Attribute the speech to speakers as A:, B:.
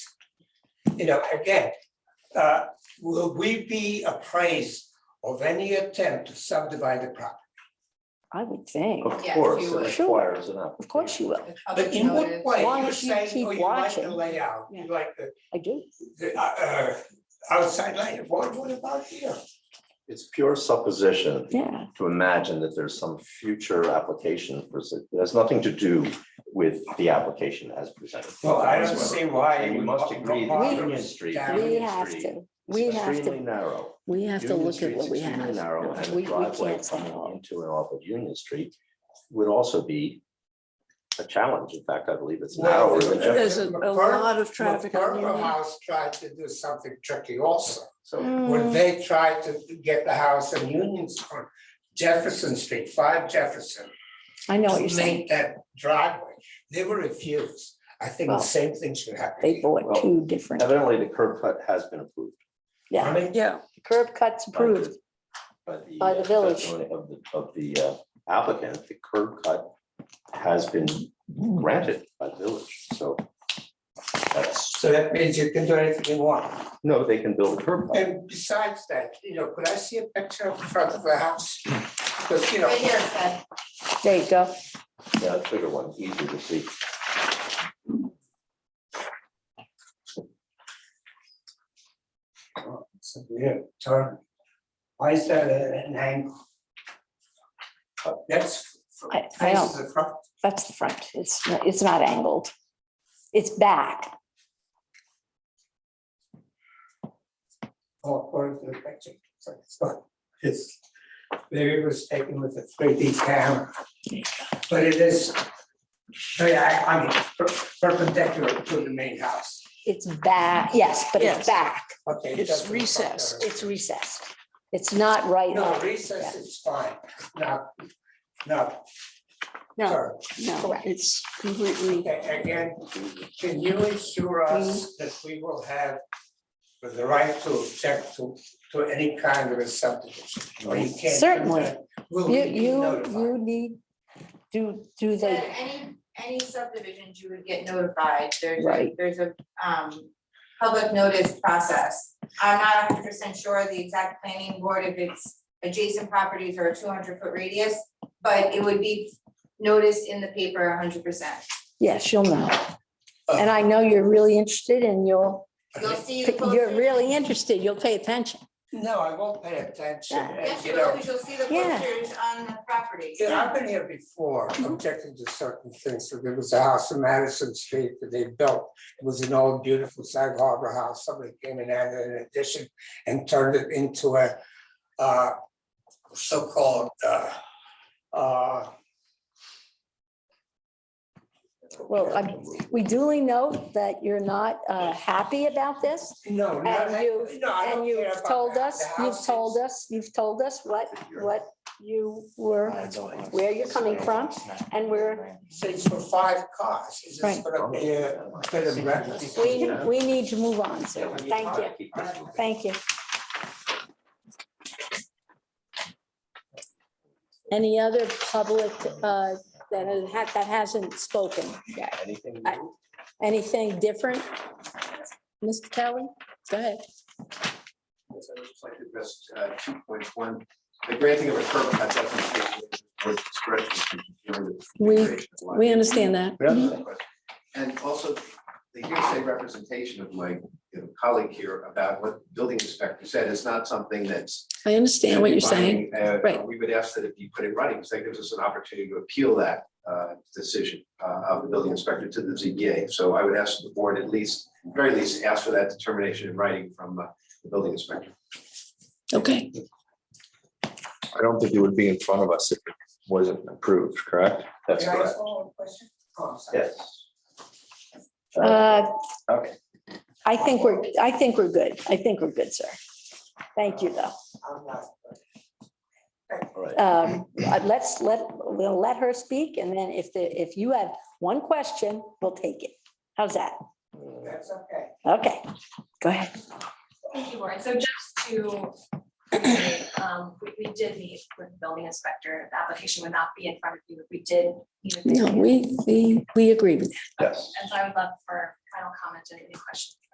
A: you know, again, uh, will we be appraised of any attempt to subdivide the property?
B: I would think.
C: Of
D: Yes,
C: course,
D: you
C: it
D: would.
C: requires an application.
B: Of course you will.
D: The
A: But
D: public
A: in what way?
D: notice.
B: Why
A: You're
B: don't you
A: saying,
B: keep
A: oh, you like the
B: watching?
A: layout, you like the,
B: I do.
A: the, uh, uh, outside layout, what, what about here?
C: It's pure supposition
B: Yeah.
C: to imagine that there's some future application for, s- it has nothing to do with the application as presented.
A: Well, I don't see why.
C: And
A: it
C: you
A: would
C: must
A: bo-
C: agree
A: bother
C: that
A: us
C: Union Street.
A: down.
B: We
C: Union
B: have
C: Street
B: to,
C: is
B: we have
C: Extremely
B: to,
C: narrow.
B: we have to
C: Union
B: look at
C: Street's
B: what we
C: extremely
B: have.
C: Narrow and
B: We,
C: the
B: we
C: driveway
B: can't stop.
C: coming into and off of Union Street would also be a challenge. In fact, I believe it's
A: Well,
C: narrower than Jefferson.
E: There's a, a
A: McCarthy-
E: lot of traffic on
A: McCarthy
E: Union.
A: House tried to do something tricky also.
C: So
A: When
B: Mm,
A: they tried to get the house in Union, on Jefferson Street, five Jefferson.
B: I know
A: to
B: what you're saying.
A: Make that driveway, they were refused. I think the
B: Well,
A: same thing should happen.
B: They
A: here.
B: bought
C: Well,
B: two different,
C: evidently the curb cut has been approved.
A: I
B: yeah,
A: mean,
E: Yeah,
B: curb cuts
C: by the-
B: approved. By
C: By
B: the
C: the. uh,
B: village.
C: testimony Of the, of the uh, applicant, the curb cut has been granted by the village, so. That's,
A: so that means you can do anything you want.
C: no, they can build a curb cut.
A: And besides that, you know, could I see a picture of the front of the house? Because, you know,
D: Right here, it said,
B: There you go.
C: Yeah, that's a bigger one, easier to see.
A: oh, it's a weird turn. Why is that at an angle? Uh, That's.
B: I- I
A: faces the front.
B: That's the front. It's, not- it's not angled. It's back.
A: Oh, according to the picture. So it's not- It's, maybe it was taken with a three D camera. But it is, I, I- I mean, per- perpendicular to the main house.
B: It's back, yes, but it's
E: Yes.
B: back.
A: Okay. it
E: It's
A: doesn't-
E: recessed.
B: It's recessed. It's not right.
A: No,
B: on.
A: recess is fine, not, not
B: No,
A: curved.
B: no.
E: no, it's completely,
A: A- Again, can you assure
B: Mm-hmm.
A: us that we will have the right to object to, to any kind of a subdivision? Or you can't do
B: Certainly.
A: that? Will
B: You,
A: we be
B: you,
A: notified?
B: you need, do, do
D: it said
B: they,
D: any, any subdivisions you would get notified, there's a,
B: Right.
D: there's a, um, public notice process. I'm not hundred percent sure the exact planning board if it's adjacent properties or a two hundred foot radius, but it would be noticed in the paper hundred percent.
B: yes, you'll know.
A: Uh.
B: And I know you're really interested and you'll,
D: You'll see. the
B: you're
D: posters.
B: really interested. You'll pay attention.
A: No, I won't pay attention,
B: Yeah.
A: and
D: Yes,
A: you
D: you will,
A: know,
D: because you'll see the
B: Yeah.
D: posters on the property.
A: you know, I've been here before objecting to certain things, so there was a house in Madison Street that they built. It was an old beautiful Sag Harbor house, somebody came in and added an addition and turned it into a uh so-called uh uh.
B: Well, I'm- We duly note that you're not uh, happy about this.
A: No, no,
B: And
A: I-
B: you've,
A: no, I
B: and
A: don't care
B: you've
A: about
B: told
A: that.
B: us,
A: The
B: you've
A: house
B: told
A: is-
B: us, you've told us what, what you were, where you're coming from and where
A: Six for five cars, is this
B: Right.
A: gonna be a bit of breakfast?
B: we, we need to move on. So, thank you, thank you. Any other public uh, that has, that hasn't spoken yet?
C: Anything
B: I-
C: new?
B: Anything different? Mr. Kelly, go ahead.
F: Yes, I'd just like to address two points. One, the granting of a curb cut doesn't with discretion.
B: We, we understand that. Mm-hmm.
F: And also the hearsay representation of my you know, colleague here about what the building inspector said is not something that's.
B: I understand what you're saying.
F: Uh,
B: Right.
F: We would ask that it be put in writing because that gives us an opportunity to appeal that uh, decision uh, of the building inspector to the ZBA. So I would ask the board at least, very least, ask for that determination in writing from uh, the building inspector.
B: Okay,
C: I don't think it would be in front of us if it wasn't approved, correct? That's
A: Can I ask
C: correct.
A: one more question? Oh, I'm sorry.
C: Yes.
B: uh,
C: Okay.
B: I think we're, I think we're good. I think we're good, sir. Thank you, though.
A: I'm not-
C: All right.
B: Um, uh, let's let, we'll let her speak and then if the, if you have one question, we'll take it. How's that?
A: That's okay.
B: Okay, go ahead.
G: Thank you, Warren. So just to, reiterate, um, we, we did meet with the building inspector. The application would not be in front of you. We did. meet with the-
B: No, we, we, we agree with that.
C: Yes.
G: And so I would love for final comment and any questions.